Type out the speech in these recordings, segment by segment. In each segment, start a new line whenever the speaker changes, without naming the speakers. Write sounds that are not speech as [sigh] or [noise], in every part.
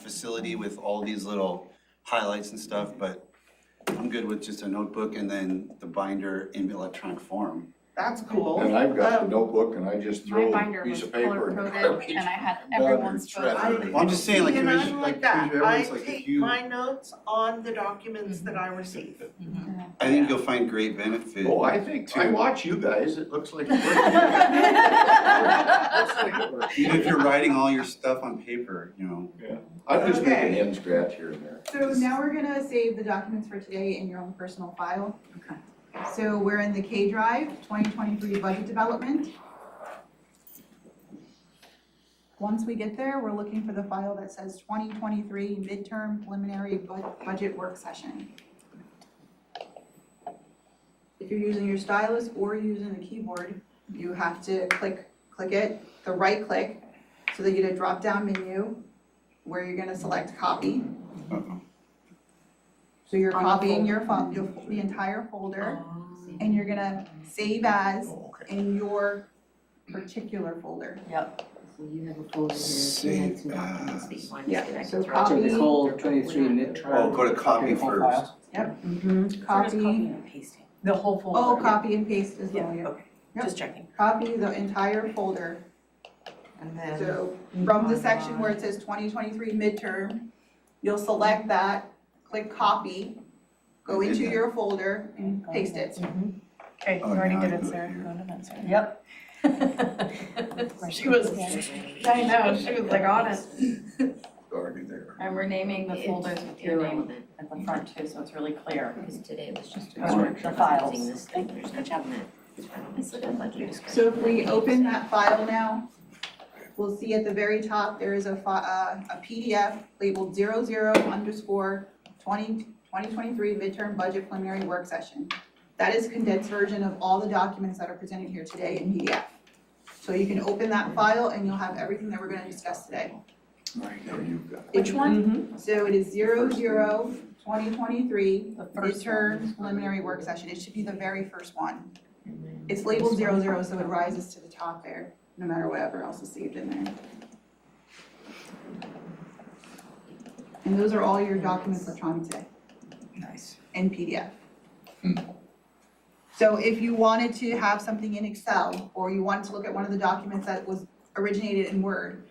facility with all these little highlights and stuff, but I'm good with just a notebook and then the binder in electronic form.
That's cool.
And I've got the
Um,
notebook and I just
My
throw
binder
a
was
piece of paper
color
in the
coded
garbage.
and I had
Rather
everyone's
than
photo.
treasure.
Well, I'm just saying, like,
See, and
commission-
I'm
like,
like that.
commission- everyone's like,
I
if
take
you-
my notes on the documents that I receive.
I think you'll find great benefit.
[laughs] Oh, I think, I
Two.
watch you guys, it looks like. it works. Looks like it works.
Even if [laughs] you're writing all your stuff on paper, you know,
I'm just making
Okay.
hand scratch here and there.
So now we're gonna save the documents for today in your own personal file.
Okay.
So we're in the K drive, twenty twenty-three budget development. Once we get there, we're looking for the file that says twenty twenty-three midterm preliminary bud- budget work session. If you're using your stylus or using a keyboard, you have to click, click it, the right click, so they get a drop-down menu where you're gonna select copy.
Uh-huh.
uh-oh.
So you're
On the
copying your fo- your, fo- the entire folder, and you're gonna save as
Oh, okay.
in your particular folder.
So you have a folder here, you had
Save
some documents that you wanted
Yeah,
to connect.
So
to.
copy-
the whole twenty-three
Oh, go to copy first.
We're just
Copy,
and pasting.
The whole folder.
oh, copy and paste is the
Yeah,
one, yeah.
okay, just checking.
copy the entire folder.
And then,
So from the section where it says twenty twenty-three midterm, you'll select that, click copy,
I
go
did
into
that.
your folder and paste it.
Okay, you
Oh,
already
now
did
I
it,
do it
Sarah.
here.
No, no, no, Sarah.
Yep.
She was, I know, she was like on it.
Already there.
And we're naming the folders with your name at the front too, so it's really clear.
Because today was just.
Or the files.
Using this thing, there's nothing that, it's like a budget discussion.
So if we open that file now, we'll see at the very top, there is a fi- uh, a PDF labeled zero zero underscore twenty, twenty twenty-three midterm budget preliminary work session. That is condensed version of all the documents that are presented here today in PDF. So you can open that file and you'll have everything that we're gonna discuss today.
There you go.
Which one?
Mm-hmm.
So it is zero zero twenty twenty-three
The first one.
midterm preliminary work session, it should be the very first one. It's labeled zero zero, so it rises to the top there, no matter whatever else is saved in there. And those are all your documents electronic today
Nice.
in PDF.
Hmm.
So if you wanted to have something in Excel, or you wanted to look at one of the documents that was originated in Word,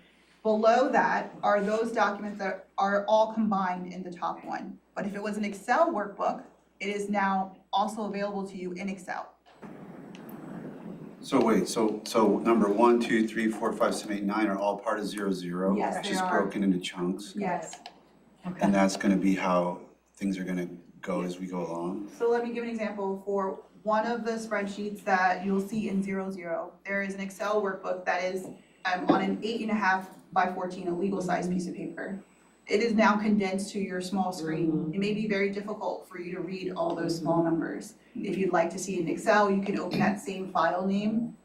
below that are those documents that are all combined in the top one. But if it was an Excel workbook, it is now also available to you in Excel.
So wait, so, so number one, two, three, four, five, seven, eight, nine are all part of zero, zero?
Yes,
It's
they
just
are.
broken into chunks,
Yes.
and that's gonna be how things are gonna go as we go along.
So let me give an example for one of the spreadsheets that you'll see in zero zero. There is an Excel workbook that is um on an eight and a half by fourteen, a legal size piece of paper. It is now condensed to your small screen. It may be very difficult for you to read all those small numbers. If you'd like to see it in Excel, you can open that same file name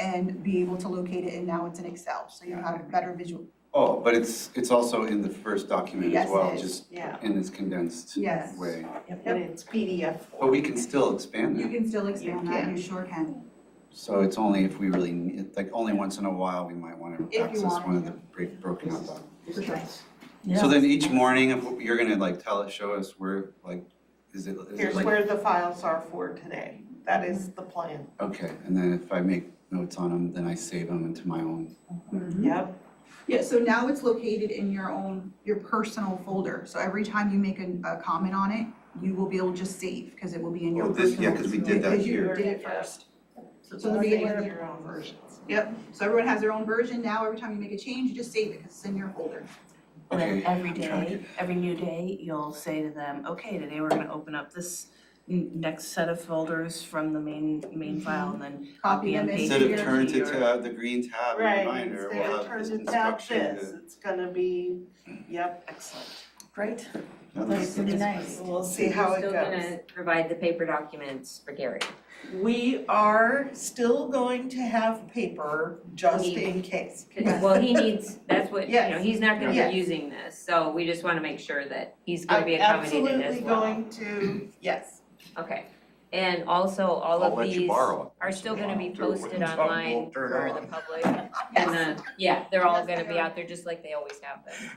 and be able to locate it, and now it's in Excel, so you have a better visual.
Oh, but it's, it's also in the first document
Yes,
as
it
well,
is.
just
yeah,
in this condensed way.
Yes.
and it's PDF
But
form.
we can still expand
You
it,
can still expand that, you sure can.
so it's only if we really, need like, only once in a while, we might wanna
you
access
want
one of
to.
the break, broken up. documents.
Yeah.
So then each morning, if you're gonna like tell us, show us where, like, is it, is it
Here's
like,
where the files are for today. That is the plan.
okay, and then if I make notes on them, then I save them into my own.
Mm-hmm.
Yep.
Yeah, so now it's located in your own, your personal folder, so every time you make a, a comment on it, you will be able to just save, cause it will be in your
Oh,
personal.
this, yeah, cause we did that
Because you
here.
did it first. So
Or
the
they
beginning
have
of the,
Your own versions.
yep, so everyone has their own version, now every time you make a change, you just save it, cause it's in your folder.
And then
Okay,
every
I'm trying to
day, every new day, you'll say to them, okay, today we're gonna open up this n- next set of folders from the main, main file and then
Copy them into
Instead
Instead
your.
of turn to tab, the green tab in the
Right,
binder,
instead
we'll
of
have this
turning down
instruction.
this, it's gonna be, yep,
excellent.
Great.
that-
That's really nice.
we'll see how it goes.
Still gonna provide the paper documents for Gary.
We are still going to have paper just in case.
'Cause- well, he needs, that's what, you know,
Yes.
he's not gonna
Yes.
be using this, so we just wanna make sure that he's gonna
I'm
be accommodated as well.
Absolutely going to, yes.
Okay, and also, all
I'll
of
let you
these
borrow it.
are still gonna be
Do it when
posted
something won't
online
turn
for
on.
uh, the public, and the, yeah, they're all gonna be out there just like they always have been.